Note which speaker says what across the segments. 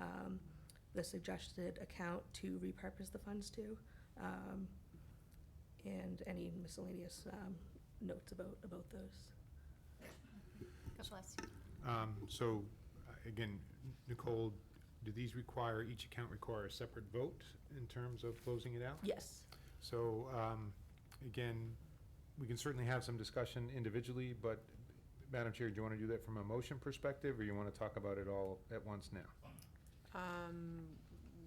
Speaker 1: um, the suggested account to repurpose the funds to, um, and any miscellaneous um, notes about, about those.
Speaker 2: God bless you.
Speaker 3: Um, So, uh, again, Nicole, do these require, each account require a separate vote in terms of closing it out?
Speaker 1: Yes,
Speaker 3: So, um, again, we can certainly have some discussion individually, but Madam Chair, do you want to do that from a motion perspective, or you want to talk about it all at once now?
Speaker 4: Um,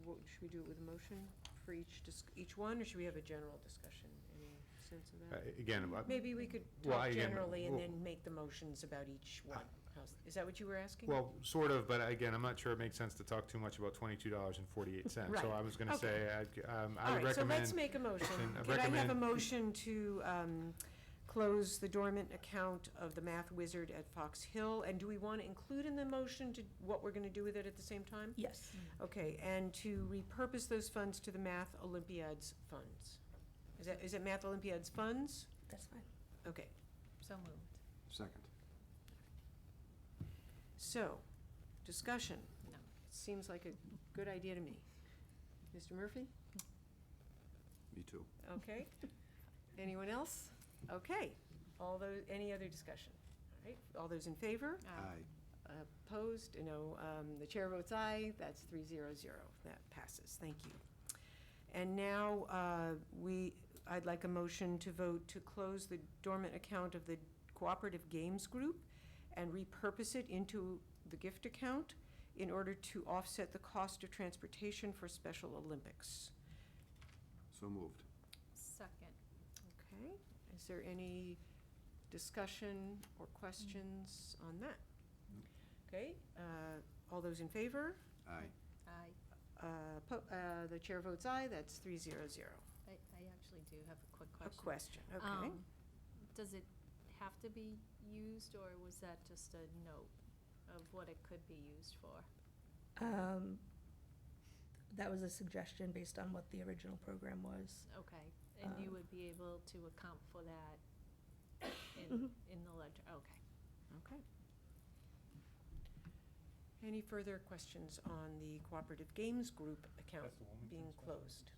Speaker 4: what, should we do it with a motion for each, dis- each one, or should we have a general discussion? Any sense of
Speaker 3: Uh,
Speaker 4: that?
Speaker 3: Again, I-
Speaker 4: Maybe we could
Speaker 3: Well, I
Speaker 4: talk
Speaker 3: am-
Speaker 4: generally and
Speaker 3: well- Uh,
Speaker 4: then make the motions about each one. How's- Is that what you were asking?
Speaker 3: well, sort of, but again, I'm not sure it makes sense to talk too much about twenty-two dollars and forty-eight cents. So
Speaker 4: Right,
Speaker 3: I was going to say, I'd- um, I
Speaker 4: All
Speaker 3: would
Speaker 4: right, so let's
Speaker 3: recommend,
Speaker 4: make a motion.
Speaker 3: then I
Speaker 4: Could I have a
Speaker 3: recommend-
Speaker 4: motion to, um, close the dormant account of the math wizard at Fox Hill? And do we want to include in the motion to, what we're gonna do with it at the same time?
Speaker 1: yes.
Speaker 2: Mm-hmm.
Speaker 4: Okay, and to repurpose those funds to the Math Olympiads funds. Is that, is it Math Olympiads funds?
Speaker 1: That's fine.
Speaker 4: Okay,
Speaker 2: So moved.
Speaker 5: Second.
Speaker 4: so, discussion.
Speaker 2: No.
Speaker 4: Seems like a good idea to me. Mr. Murphy?
Speaker 5: Me too.
Speaker 4: Okay. Anyone else? Okay. All those, any other discussion? All right, all those in favor?
Speaker 2: Um,
Speaker 5: Aye.
Speaker 4: Opposed? No. Um, The chair votes aye. That's three zero zero. That passes. Thank you. And now, uh, we, I'd like a motion to vote to close the dormant account of the Cooperative Games Group and repurpose it into the gift account in order to offset the cost of transportation for Special Olympics.
Speaker 5: So moved.
Speaker 2: Second.
Speaker 4: Okay, is there any discussion or questions on that?
Speaker 5: Nope.
Speaker 4: Okay, uh, all those in favor?
Speaker 5: Aye.
Speaker 2: I,
Speaker 4: Uh, po- uh, The chair votes aye, that's three zero zero.
Speaker 2: I I actually do have a quick
Speaker 4: A
Speaker 2: question.
Speaker 4: question, okay.
Speaker 2: Um, Does it have to be used, or was that just a note of what it could be used for?
Speaker 1: Um, That was a suggestion based on what the original program was.
Speaker 2: Okay, and you
Speaker 1: Um,
Speaker 2: would be able to account for that in,
Speaker 1: Mhm.
Speaker 2: in the ledger, okay.
Speaker 4: Okay. Any further questions on the Cooperative Games Group account being closed?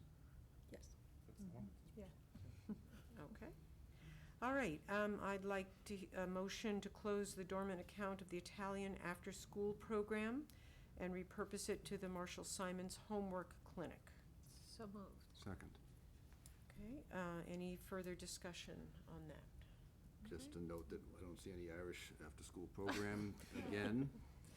Speaker 1: Yes.
Speaker 4: Okay. All right, um, I'd like to, he- a motion to close the dormant account of the Italian after-school program and repurpose it to the Marshall Simons Homework Clinic.
Speaker 2: So moved.
Speaker 5: Second.
Speaker 4: Okay, uh, any further discussion on that?
Speaker 5: Just to note that I don't see any Irish after-school program again,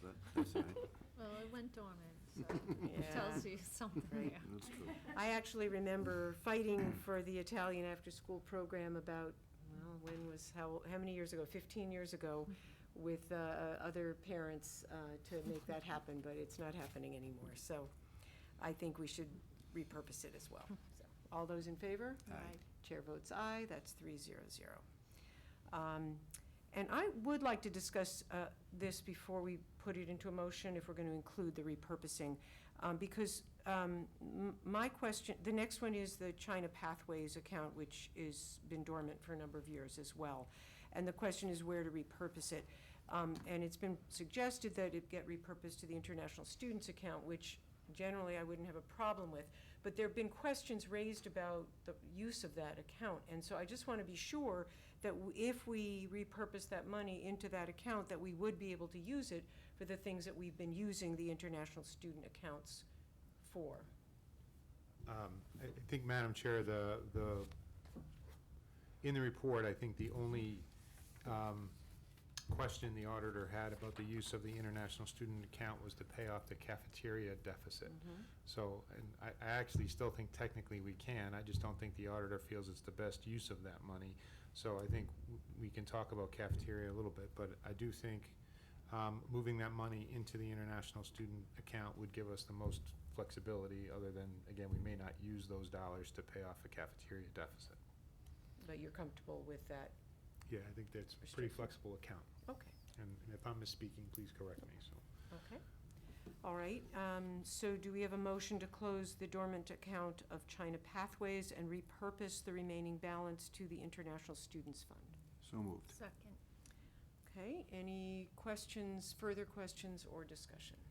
Speaker 5: but that's all right.
Speaker 2: Well, it went dormant, so
Speaker 4: Yeah.
Speaker 2: it tells you something.
Speaker 4: Right.
Speaker 5: That's true.
Speaker 4: I actually remember fighting for the Italian after-school program about, well, when was, how, how many years ago? Fifteen years ago with, uh, other parents, uh, to make that happen, but it's not happening anymore. So I think we should repurpose it as well. So, All those in favor?
Speaker 5: Aye.
Speaker 4: Chair votes aye, that's three zero zero. Um, And I would like to discuss uh, this before we put it into a motion, if we're going to include the repurposing, um, because um, m- my question, the next one is the China Pathways account, which is been dormant for a number of years as well. And the question is where to repurpose it. Um, And it's been suggested that it get repurposed to the International Students Account, which generally I wouldn't have a problem with. But there have been questions raised about the use of that account, and so I just want to be sure that w- if we repurpose that money into that account, that we would be able to use it for the things that we've been using the international student accounts for.
Speaker 3: Um, I I think, Madam Chair, the, the, in the report, I think the only um, question the auditor had about the use of the international student account was to pay off the cafeteria deficit. So, and I, I actually still think technically we can, I just don't think the auditor feels it's the best use of that money. So I think w- we can talk about cafeteria a little bit, but I do think, um, moving that money into the international student account would give us the most flexibility, other than, again, we may not use those dollars to pay off a cafeteria deficit.
Speaker 4: But you're comfortable with that?
Speaker 3: Yeah, I think that's a pretty flexible account,
Speaker 4: Okay,
Speaker 3: and and if I'm misspeaking, please correct me, so.
Speaker 4: okay. All right, um, so do we have a motion to close the dormant account of China Pathways and repurpose the remaining balance to the International Students Fund?
Speaker 5: So moved.
Speaker 2: Second.
Speaker 4: Okay, any questions, further questions or discussion?